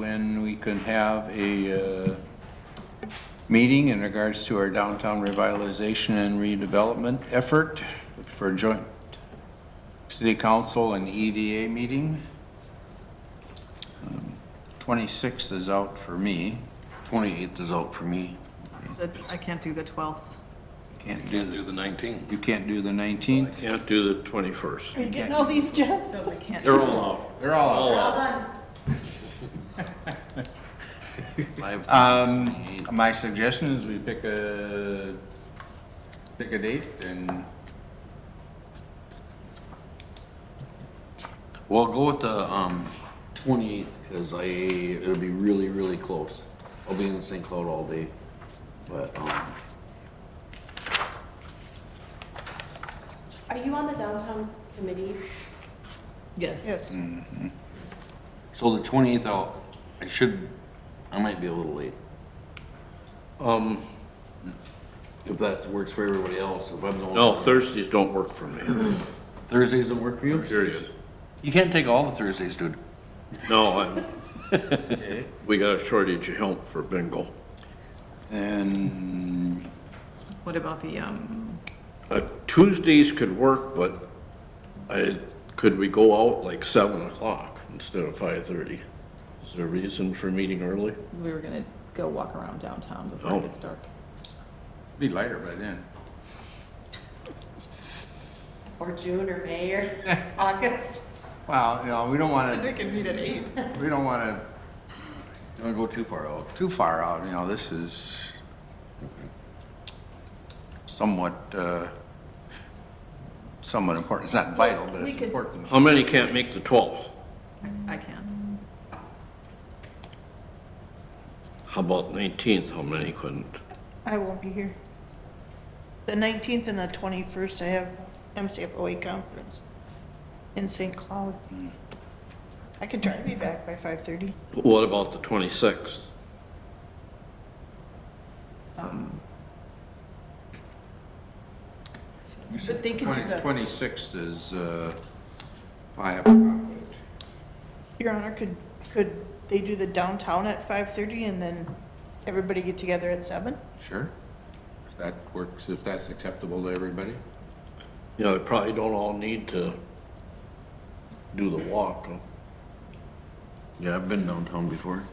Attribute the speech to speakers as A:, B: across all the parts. A: when we can have a uh, meeting in regards to our downtown revitalization and redevelopment effort for a joint city council and EDA meeting. Um, 26th is out for me.
B: 28th is out for me.
C: The- I can't do the 12th.
A: Can't do,
B: Can't do the 19th.
A: you can't do the 19th?
D: Can't do the 21st.
E: Are you getting all these, Jeff?
C: So we can't.
D: They're all out.
A: They're all out.
B: Five-
A: Um, my suggestion is we pick a, pick a date and
B: Well, go with the um, 28th because I, it'll be really, really close. I'll be in St. Cloud all day. But, um,
F: Are you on the downtown committee?
C: Yes.
E: Yes.
B: so the 28th, I'll, I should, I might be a little late.
D: Um,
B: If that works for everybody else, if I'm the only.
D: no,
B: one.
D: Thursdays don't work for me,
B: Thursdays don't work for you?
D: period.
B: You can't take all the Thursdays, dude.
D: No, I'm, we got a shortage of help for bingo.
A: And
C: What about the, um,
D: Uh, Tuesdays could work, but I, could we go out like 7 o'clock instead of 5:30? Is there a reason for meeting early?
C: we were gonna go walk around downtown before
D: Oh.
C: it gets dark.
A: be lighter by then.
F: Or June or May or August?
A: Well, you know, we don't wanna,
C: can meet at 8.
A: we don't wanna
B: Don't go too far out.
A: too far out, you know, this is somewhat, uh, somewhat important. It's not vital, but
C: We
A: it's
C: could-
A: important.
D: How many can't make the 12th?
C: I can't.
D: How about 19th? How many couldn't?
E: I won't be here. The 19th and the 21st, I have MCFOA conference in St. Cloud. I can try to be back by 5:30.
D: What about the 26th?
C: But they can do the,
A: Twenty-six is, uh, I have a conflict.
E: Your Honor, could, could they do the downtown at 5:30 and then everybody get together at 7?
A: Sure. If that works, if that's acceptable to everybody.
D: You know, they probably don't all need to do the walk. huh?
B: Yeah, I've been downtown before.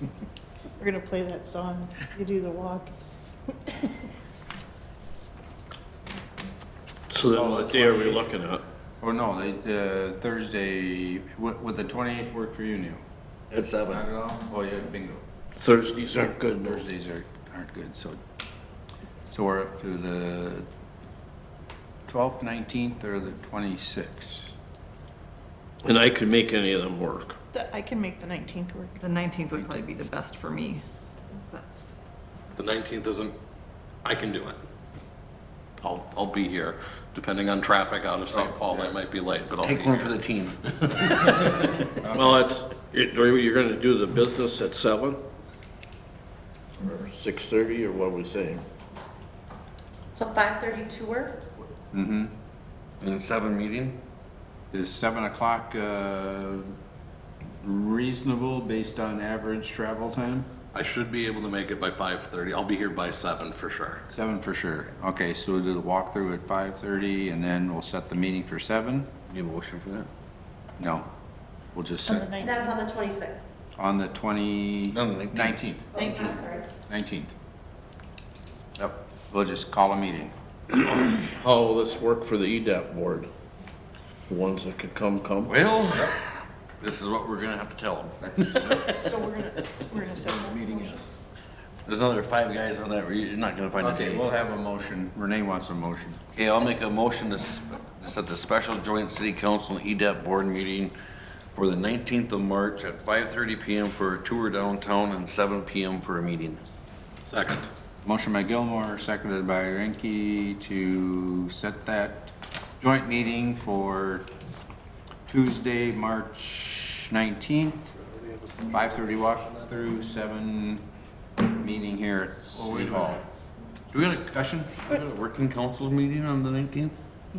E: We're gonna play that song, you do the walk.
D: So then what day are we looking at?
A: Or Oh, no, they, uh, Thursday, would, would the twenty-eighth work for you, Neil?
B: At 7.
A: Not at all? Oh, yeah, bingo.
D: Thursdays aren't good, no.
A: Thursdays are, aren't good, so, so we're up to the twelfth, nineteenth, or the twenty-sixth.
D: And I could make any of them work.
E: The- I can make the 19th work.
C: the 19th would probably be the best for me. That's,
B: The 19th isn't, I can do it. I'll, I'll be here, depending on traffic out of St. Paul, I might be late, but I'll be here. Take one for the team.
D: Well, it's, it- are you gonna do the business at seven? Or six-thirty, or what are we saying?
F: So five thirty tour?
B: In a seven meeting?
A: Is seven o'clock, uh, reasonable based on average travel time?
B: I should be able to make it by 5:30, I'll be here by seven for sure.
A: Seven for sure. Okay, so we'll do the walkthrough at five-thirty, and then we'll set the meeting for seven?
B: You have a motion for that?
A: No, we'll just
E: On the
A: set,
E: 19th.
F: That's on the twenty-sixth.
A: on the twenty,
B: No, the 19th.
A: nineteenth.
E: Nineteen.
F: Oh, sorry.
A: 19th. Yep, we'll just call a meeting.
D: How will this Oh, work for the E EDAP board? The ones that could come, come?
B: Well, this is what we're gonna have to tell them.
E: So we're gonna, we're gonna set that
A: Meeting
E: motion.
B: There's another five guys on that, you're not gonna find a
A: Okay, we'll
B: day.
A: have a motion. Renee wants a motion.
B: Okay, I'll make a motion to s- to set the special joint city council and E EDAP board meeting for the 19th of March at 5:30 PM for a tour downtown and 7 PM for a meeting. Second.
A: Motion by Gilmore, seconded by Renke to set that joint meeting for Tuesday, March 19th, 5:30 walk through, 7 meeting here at City Hall.
B: Do we have a
A: Discussion?
B: We got a working council meeting on the nineteenth?